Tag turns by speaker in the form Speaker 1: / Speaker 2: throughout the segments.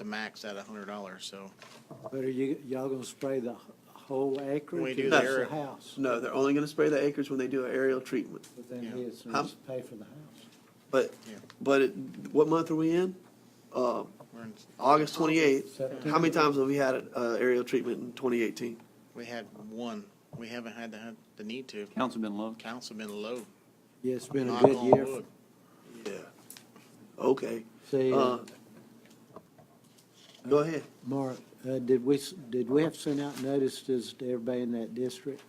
Speaker 1: the max at a hundred dollars, so.
Speaker 2: But are you, y'all gonna spray the whole acreage?
Speaker 1: We do
Speaker 2: or
Speaker 1: the
Speaker 2: just
Speaker 1: area.
Speaker 2: House,
Speaker 3: No, they're only gonna spray the acres when they do an aerial treatment.
Speaker 2: but then
Speaker 1: Yeah.
Speaker 2: he's,
Speaker 3: How-
Speaker 2: he's pay for the house.
Speaker 3: But,
Speaker 1: Yeah.
Speaker 3: but it, what month are we in? Uh,
Speaker 1: we're in-
Speaker 3: August twenty-eighth. How
Speaker 2: September.
Speaker 3: many times have we had an uh, aerial treatment in twenty eighteen?
Speaker 1: We had one. We haven't had the, the need to.
Speaker 4: Councilman Love.
Speaker 1: Council been low.
Speaker 2: Yeah, it's been a
Speaker 1: Knock
Speaker 2: good
Speaker 1: on
Speaker 2: year.
Speaker 1: wood.
Speaker 3: Yeah. Okay,
Speaker 2: See,
Speaker 3: uh,
Speaker 2: uh,
Speaker 3: go ahead.
Speaker 2: Mark, uh, did we, s- did we have sent out notices to everybody in that district?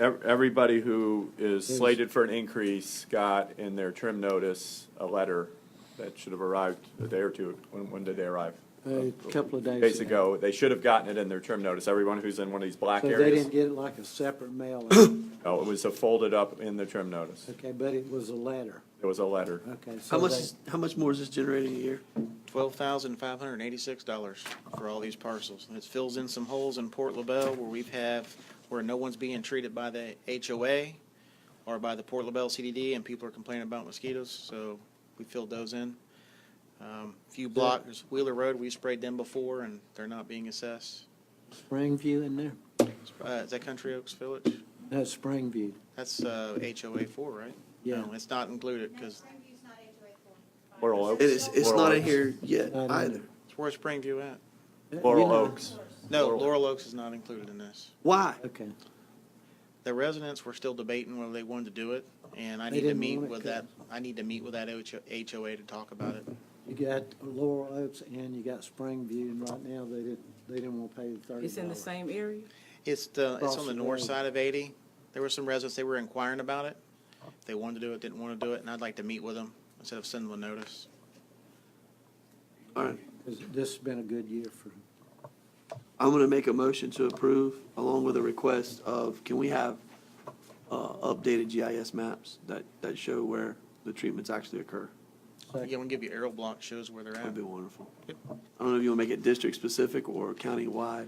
Speaker 5: Ev- Everybody who is
Speaker 2: Yes.
Speaker 5: slated for an increase got in their trim notice a letter that should have arrived a day or two. When, when did they arrive?
Speaker 2: uh, A couple of days
Speaker 5: Days
Speaker 2: ago.
Speaker 5: ago. They should have gotten it in their trim notice. Everyone who's in one of these black
Speaker 2: So they
Speaker 5: areas.
Speaker 2: didn't get it like a separate mail,
Speaker 5: No, it was a folded up in the trim notice.
Speaker 2: okay, but it was a letter,
Speaker 5: It was a letter.
Speaker 2: okay. so
Speaker 3: How much,
Speaker 2: they-
Speaker 3: is- how much more is this generating a year?
Speaker 1: Twelve thousand five hundred and eighty-six dollars for all these parcels. And It fills in some holes in Port LaBelle where we've have, where no one's being treated by the HOA or by the Port LaBelle CDD and people are complaining about mosquitoes, so we filled those in. Um, Few blocks, there's Wheeler Road, we sprayed them before and they're not being assessed.
Speaker 2: Springview in there?
Speaker 1: Uh, is that Country Oaks Village?
Speaker 2: No, Springview.
Speaker 1: That's, uh, HOA four, right?
Speaker 2: Yeah.
Speaker 1: No, it's not included because
Speaker 6: Springview's not HOA four.
Speaker 5: Laurel
Speaker 3: It
Speaker 5: Oaks.
Speaker 3: is, it's
Speaker 5: Laurel
Speaker 3: not in
Speaker 5: Oaks.
Speaker 3: here yet
Speaker 2: Not in
Speaker 3: either.
Speaker 2: there.
Speaker 1: it's where Springview at.
Speaker 2: Uh, you
Speaker 5: Laurel
Speaker 2: know-
Speaker 5: Oaks.
Speaker 1: No,
Speaker 5: Laurel.
Speaker 1: Laurel Oaks is not included in this.
Speaker 3: Why?
Speaker 2: Okay,
Speaker 1: The residents were still debating whether they wanted to do it, and I
Speaker 2: They
Speaker 1: need to
Speaker 2: didn't
Speaker 1: meet
Speaker 2: want it,
Speaker 1: with that, I need to meet with that HOA to talk about it.
Speaker 2: you got Laurel Oaks and you got Springview, and right now they didn't, they didn't wanna pay the thirty
Speaker 7: It's in the
Speaker 2: dollars.
Speaker 7: same area?
Speaker 1: It's the, it's
Speaker 2: Across
Speaker 1: on
Speaker 2: the
Speaker 1: the north
Speaker 2: road.
Speaker 1: side of eighty. There were some residents, they were inquiring about it. If They wanted to do it, didn't want to do it, and I'd like to meet with them instead of sending them a notice.
Speaker 3: All right,
Speaker 2: This has been a good year for
Speaker 3: I'm gonna make a motion to approve along with a request of, can we have, uh, updated GIS maps that, that show where the treatments actually occur?
Speaker 1: Yeah, I'm gonna give you aerial block shows where they're
Speaker 3: That'd
Speaker 1: at.
Speaker 3: be wonderful. I
Speaker 1: Yep.
Speaker 3: don't know if you wanna make it district-specific or county-wide.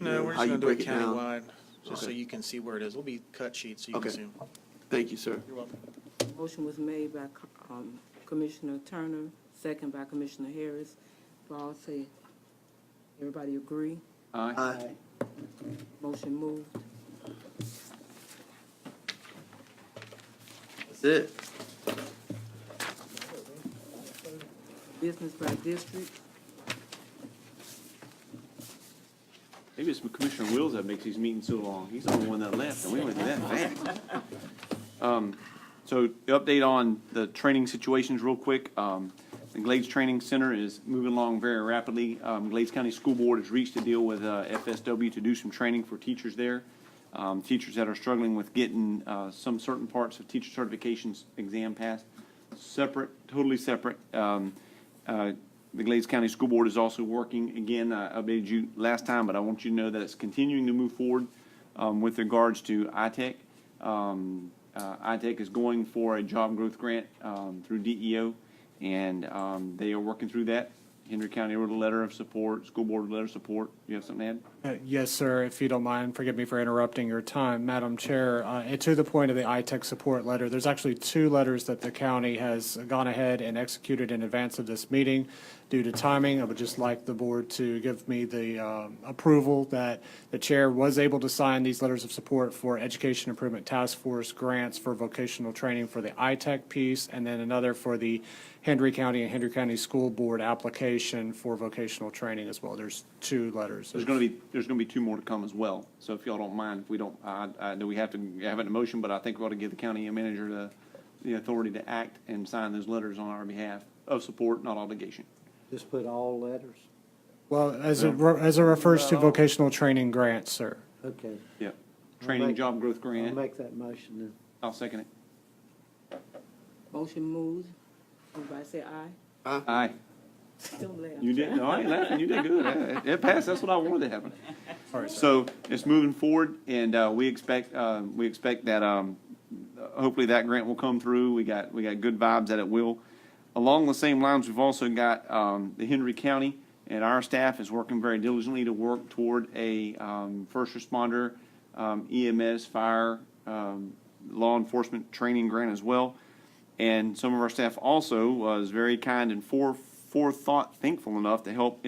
Speaker 1: No, we're
Speaker 3: How
Speaker 1: just
Speaker 3: you
Speaker 1: gonna do it
Speaker 3: break it down?
Speaker 1: countywide, just so
Speaker 3: Okay.
Speaker 1: you can see where it is. It'll be cut sheets, so you can
Speaker 3: Okay.
Speaker 1: see 'em.
Speaker 3: Thank you, sir.
Speaker 1: You're welcome.
Speaker 7: Motion was made by Co- um, Commissioner Turner, second by Commissioner Harris. All say, everybody agree?
Speaker 4: Aye.
Speaker 3: Aye.
Speaker 7: Motion moved.
Speaker 3: That's it.
Speaker 7: Business by district.
Speaker 4: Maybe it's Commissioner Wills that makes these meetings so long. He's the only one that left, and we went that fast. Um, So the update on the training situations real quick. Um, The Glades Training Center is moving along very rapidly. Um, Glades County School Board has reached a deal with uh, FSW to do some training for teachers there. Um, Teachers that are struggling with getting uh, some certain parts of teacher certifications exam passed, separate, totally separate. Um, uh, The Glades County School Board is also working, again, I updated you last time, but I want you to know that it's continuing to move forward um, with regards to ITech. Um, uh, ITech is going for a job growth grant um, through DEO, and um, they are working through that. Henry County wrote a letter of support, school board letter of support. You have something to add?
Speaker 8: Uh, Yes, sir, if you don't mind, forgive me for interrupting your time. Madam Chair, uh, and to the point of the ITech support letter, there's actually two letters that the county has gone ahead and executed in advance of this meeting. Due to timing, I would just like the board to give me the um, approval that the chair was able to sign these letters of support for Education Improvement Task Force grants for vocational training for the ITech piece, and then another for the Henry County and Henry County School Board application for vocational training as well. There's two letters.
Speaker 4: There's going to be, there's going to be two more to come as well. So if y'all don't mind, if we don't, I, I know we have to have it in motion, but I think we ought to give the county manager the, the authority to act and sign those letters on our behalf of support, not obligation.
Speaker 2: Just put all letters?
Speaker 8: Well, as it, re- as it refers to
Speaker 2: Well-
Speaker 8: vocational training grants, sir.
Speaker 2: Okay.
Speaker 4: Yeah.
Speaker 2: I'll
Speaker 4: Training,
Speaker 2: make-
Speaker 4: job growth
Speaker 2: I'll
Speaker 4: grant.
Speaker 2: make that motion then.
Speaker 4: I'll second it.
Speaker 7: Motion moved. Everybody say aye?
Speaker 4: Aye.
Speaker 7: Don't laugh.
Speaker 4: You did, no, I ain't laughing, you did good. Uh, It passed, that's what I wanted to happen. So it's moving forward, and uh, we expect, uh, we expect that um, hopefully that grant will come through. We got, we got good vibes that it will. Along the same lines, we've also got um, the Henry County, and our staff is working very diligently to work toward a um, first responder um, EMS, fire, um, law enforcement training grant as well. And some of our staff also was very kind and fore- forethought, thankful enough to help